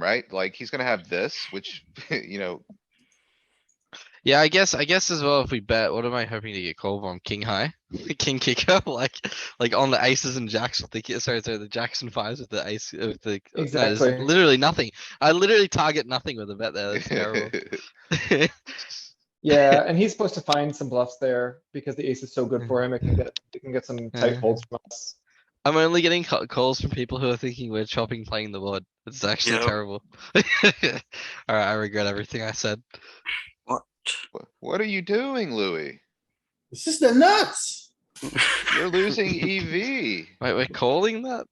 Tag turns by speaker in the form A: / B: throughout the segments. A: right? Like, he's gonna have this, which, you know,
B: Yeah, I guess, I guess as well, if we bet, what am I hoping to get called on? King high? King kicker, like, like on the aces and jacks with the, ki- sorry, sorry, the jacks and fives with the ace, with the. uh, no, there's
C: Exactly.
B: Literally nothing. I literally target nothing with a bet there. That's terrible.
C: Yeah, and he's supposed to find some bluffs there because the ace is so good
B: Mm.
C: for him. It can get, it can get some tight
B: Yeah.
C: folds from us.
B: I'm only getting ca- calls from people who are thinking we're chopping playing the board. It's actually
D: Yep.
B: terrible. Alright, I regret everything I said.
D: What?
A: wh- what are you doing, Louis?
E: This is the nuts.
A: You're losing EV.
B: Wait, we're calling that?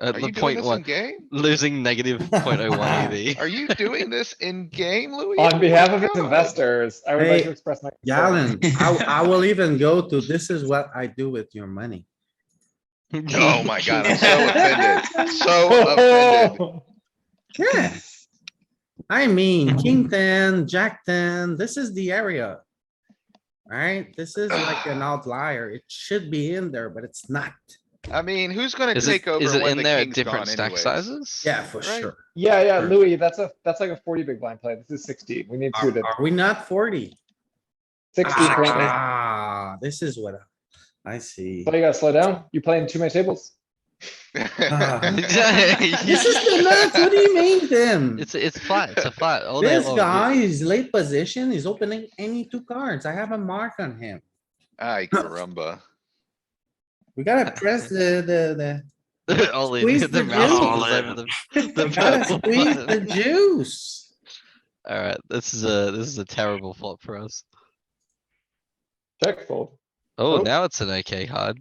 B: At
A: Are
B: the
A: you doing
B: point
A: this in
B: one,
A: game?
B: losing negative point oh one EV.
A: Are you doing this in game, Louis? Oh
C: On
A: my
C: behalf of his
A: God.
C: investors, I would like
E: Hey,
C: to express my. concern.
E: Galen, I, I will even go to, this is what I do with your money.
A: Oh my god, I'm so offended. So Oh, offended.
E: Yeah. I mean, king ten, jack ten, this is the area. Alright, this is like an outlier. It should be in there, but it's not.
A: I mean, who's gonna
B: Is it,
A: take over
B: is it
A: when
B: in
A: the
B: there at
A: king's
B: different
A: gone
B: stack
A: anyways?
B: sizes?
E: Yeah, for
A: Right.
E: sure.
C: Yeah, yeah, Louis, that's a, that's like a forty big blind play. This is sixty. We need
E: Are
C: suited.
E: are we not forty?
C: Sixty currently.
E: Ah, this is what I- I see.
C: So you gotta slow down. You're playing too many tables.
E: This is the nuts. What do you mean then?
B: It's, it's flat, it's a flat all day
E: This
B: long.
E: guy is late position. He's opening any two cards. I have a mark on him.
A: Ay, caramba.
E: We gotta press the, the, the.
B: All in,
E: Squeeze
B: the
E: the
B: mouse
E: juice.
B: was over the,
E: We gotta
B: purple
E: squeeze the
B: button.
E: juice.
B: alright, this is a, this is a terrible flop for us.
C: Check fold.
B: Oh,
C: Oh.
B: now it's an okay hard.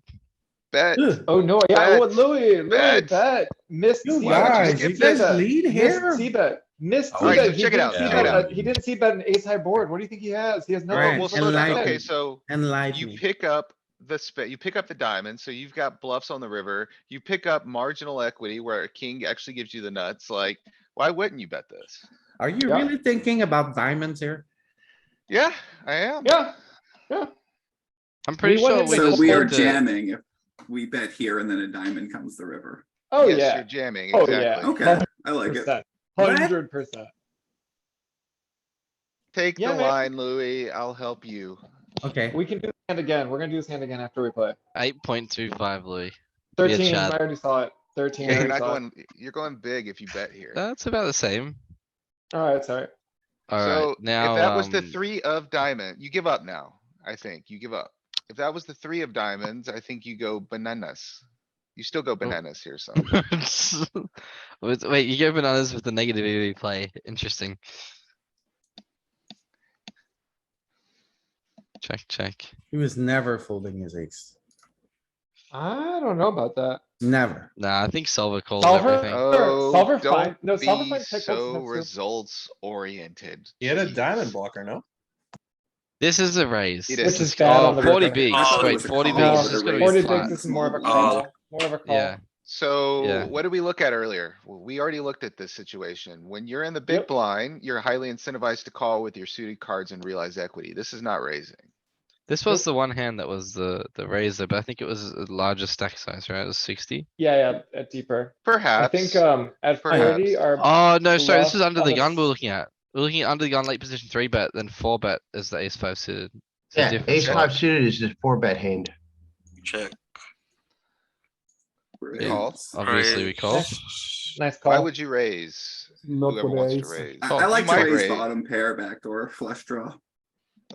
A: Bet.
E: Ugh,
C: Oh, no, yeah, oh,
A: Bet.
C: Louis, Louis,
A: Bet.
C: bet, missed.
E: You
C: C-bet.
E: guys,
A: just
E: you
A: get
E: guys
C: that.
E: lead
C: Missed
E: here.
C: C-bet, missed
A: All right,
C: C-bet.
A: so
C: He
A: check it
C: didn't
A: out,
C: see
A: check
C: bet
A: it
C: a-
A: out.
C: He didn't see bet an ace high board. What do you think he has? He has no.
E: Right,
A: Well,
C: What's
A: slow
C: the
A: down.
E: enlighten.
A: Okay,
C: bet?
A: so
E: Enlighten
A: you
E: me.
A: pick up the spit, you pick up the diamond, so you've got bluffs on the river, you pick up marginal equity where a king actually gives you the nuts, like, why wouldn't you bet this?
E: Are you
C: Yeah.
E: really thinking about diamonds here?
A: Yeah, I am.
C: Yeah,
B: I'm pretty
C: won
B: sure
C: it
B: we
C: so
F: So
B: just
F: we are
B: want to.
F: jamming if we bet here and then a diamond comes the river.
C: oh,
A: Yes,
C: yeah.
A: You're jamming,
C: Oh, yeah.
A: exactly.
F: Okay, I like it.
E: What?
C: Hundred percent.
A: Take the
C: Yeah, man.
A: line, Louis, I'll help you.
E: Okay,
C: We can do this hand again. We're gonna do this hand again after we play.
B: Eight point two five, Louis. Be a
C: Thirteen, I
B: chat.
C: already saw it. Thirteen, I
A: You're
C: already
A: not
C: saw it.
A: going, you're going big if you bet here.
B: That's about the same.
C: Alright, sorry.
B: Alright,
A: So if
B: now,
A: that was the
B: um,
A: three of diamond, you give up now, I think. You give up. If that was the three of diamonds, I think you go bananas. You still go
C: Oh.
A: bananas here, so.
B: With- Wait, you go bananas with the negative EV play. Interesting. Check, check.
E: he was never folding his ace.
C: I don't know about that.
E: Never.
B: Nah, I think solver calls
C: Solver?
B: everything.
A: Oh,
C: solver
A: don't
C: find- no, solver
A: be
C: find pick what's
A: So
C: next to-
A: results oriented.
G: He had a diamond blocker, no?
B: This is a raise.
A: It
B: This
A: is.
B: is
C: It's bad
B: oh,
C: on the
B: 40
C: river.
B: bigs.
D: Oh, it
B: Wait,
D: was a
B: 40
D: call.
B: bigs.
C: No,
D: This
B: This is
D: is a
B: gonna
D: raise.
B: be
C: forty
B: flat.
C: bigs is more of
F: Uh,
C: a
D: Oh.
C: call, more of a
B: Yeah.
C: call.
B: Yeah.
A: So what did we look at earlier? Well, we already looked at this situation. When you're in the big
C: Yep.
A: blind, you're highly incentivized to call with your suited cards and realize equity. This is not raising.
B: This was the one hand that was the the razor, but I think it was a larger stack size, right? It was 60.
C: Yeah, yeah, at deeper. I
A: Perhaps.
C: think, um, at
A: Perhaps.
C: forty our
B: Oh no, sorry, this is
C: Last
B: under the
C: other
B: gun
C: s-
B: we're looking at. We're looking at under the gun late position three bet, then four bet is the ace five suited. It's a
H: Yeah,
B: different
H: ace
B: setup.
H: five suited is this four bet hand.
D: Check.
A: Calls.
B: Obviously we
D: raise.
B: call.
C: nice
A: Why
C: call.
A: would you raise?
C: Not
A: Whoever wants to raise.
F: I
B: Oh,
F: I like
A: might
F: to raise
A: raise.
F: bottom pair backdoor flush draw.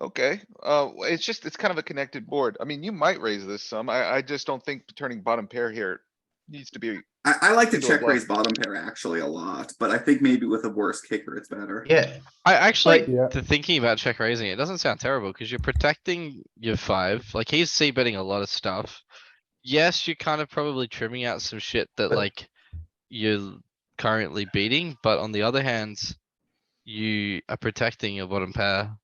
A: Okay, uh, w- it's just, it's kind of a connected board. I mean, you might raise this some. I, I just don't think turning bottom pair here needs to be.
F: I, I like to
A: Do a
F: check
A: bluff.
F: raise bottom pair actually a lot, but I think maybe with a worse kicker, it's better.
H: Yeah,
B: I actually
H: Like-
C: Yeah.
B: to thinking about check raising, it doesn't sound terrible because you're protecting your five. Like he's c betting a lot of stuff. Yes, you're kind of probably trimming out some shit that
H: But-
B: like you're currently beating, but on the other hand, you are protecting your bottom pair.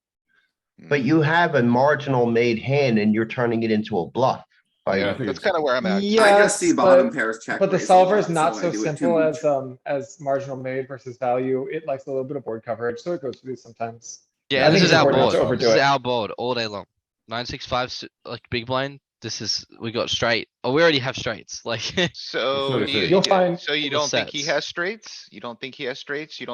H: but you have a marginal made hand and you're turning it into a bluff. by
A: Yeah,
H: opening.
A: that's kind of where I'm at.
F: I just see
C: Yes,
F: bottom
C: but,
F: pairs check.
C: but the
F: raise a lot,
C: solver is not
F: I
C: so
F: do it too
C: simple
F: much.
C: as, um, as marginal made versus value. It likes a little bit of board coverage, so it goes through sometimes.
B: Yeah,
C: I
B: this
C: think
B: is
C: it's
B: our
C: important not
B: board.
C: to overdo
B: This is
C: it.
B: our board all day long. Nine six five like big blind This is we got straight. Oh, we already have straights. Like
A: So,
C: what I
A: do you-
C: said. You'll
A: yeah,
C: find-
A: so you
B: Little
A: don't think he
B: sets.
A: has straights? You don't think he has straights? You don't